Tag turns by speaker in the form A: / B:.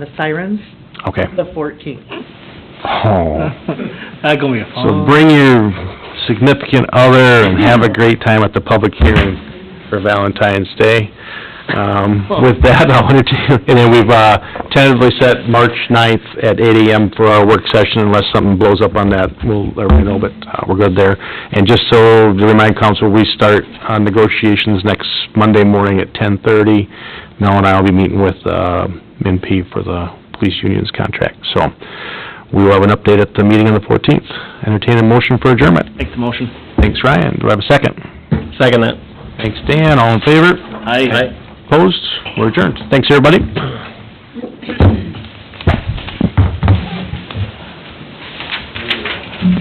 A: the sirens,
B: Okay.
A: the fourteenth.
B: Oh.
C: Not gonna be a
B: So
C: fun.
B: bring your significant other and have a great time at the public hearing for Valentine's Day. Um, with that, I wanted to, and then we've, uh, tentatively set March ninth at eight AM for our work session unless something blows up on that, we'll let everybody know, but, uh, we're good there. And just so to remind council, we start on negotiations next Monday morning at ten thirty. Mel and I will be meeting with, uh, MNP for the police union's contract, so we will have an update at the meeting on the fourteenth. Entertain a motion for adjournment.
C: Make the motion.
B: Thanks, Ryan. Do I have a second?
C: Second that.
B: Thanks, Dan. All in favor?
C: Aye.
B: Opposed? We're adjourned. Thanks, everybody.